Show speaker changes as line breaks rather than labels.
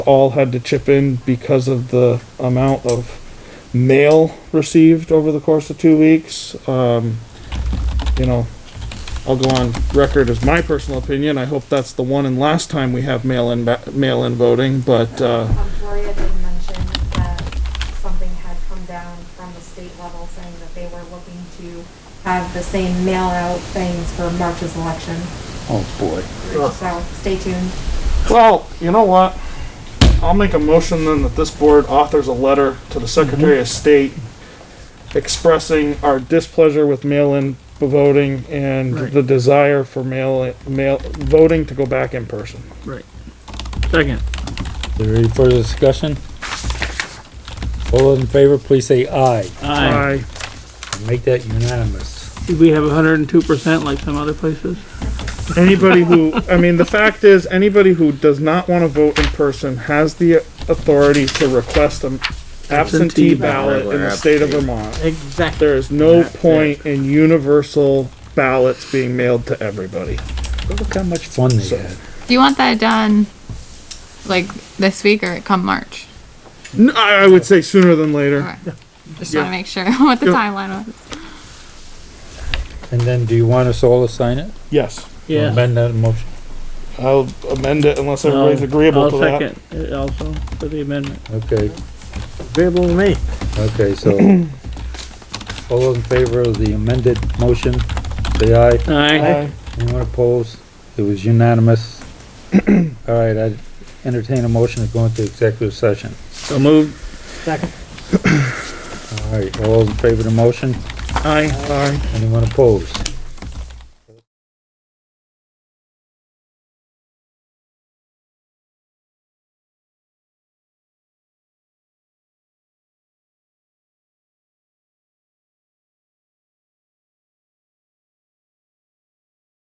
all had to chip in because of the amount of mail received over the course of two weeks. Um, you know, I'll go on record as my personal opinion. I hope that's the one and last time we have mail-in, ba- mail-in voting, but, uh,
Um, Gloria did mention that something had come down from the state level saying that they were looking to have the same mail out things for March's election.
Oh, boy.
So stay tuned.
well, you know what? I'll make a motion then that this board authors a letter to the Secretary of State expressing our displeasure with mail-in voting and
Right.
the desire for mail, mail, voting to go back in person.
Right.
Is
Second.
there any further discussion? All those in favor, please say aye.
Aye.
Make that unanimous.
Did we have hundred and two percent like some other places?
Anybody who, I mean, the fact is, anybody who does not want to vote in person has the authority to request an absentee
Absentee
ballot in the state of Vermont.
Exactly.
There is no point in universal ballots being mailed to everybody.
Look how much fun they had.
Do you want that done like this week or come March?
N- I, I would say sooner than later.
Okay. Just
Yeah.
want to make sure what the
Yeah.
timeline was.
And then do you want us all to sign it?
Yes,
Yeah.
Amend that motion.
I'll amend it unless everybody's
I'll-
agreeable
I'll
to that.
second it Also, for the amendment.
Okay,
Agreeable to me.
okay, so. All those in favor of the amended motion, say aye.
Aye.
Aye.
Anyone opposed? It was unanimous. All right, I entertain a motion to go into executive session.
So moved.
All right, all those in favor of the motion?
Aye, aye.
Anyone opposed?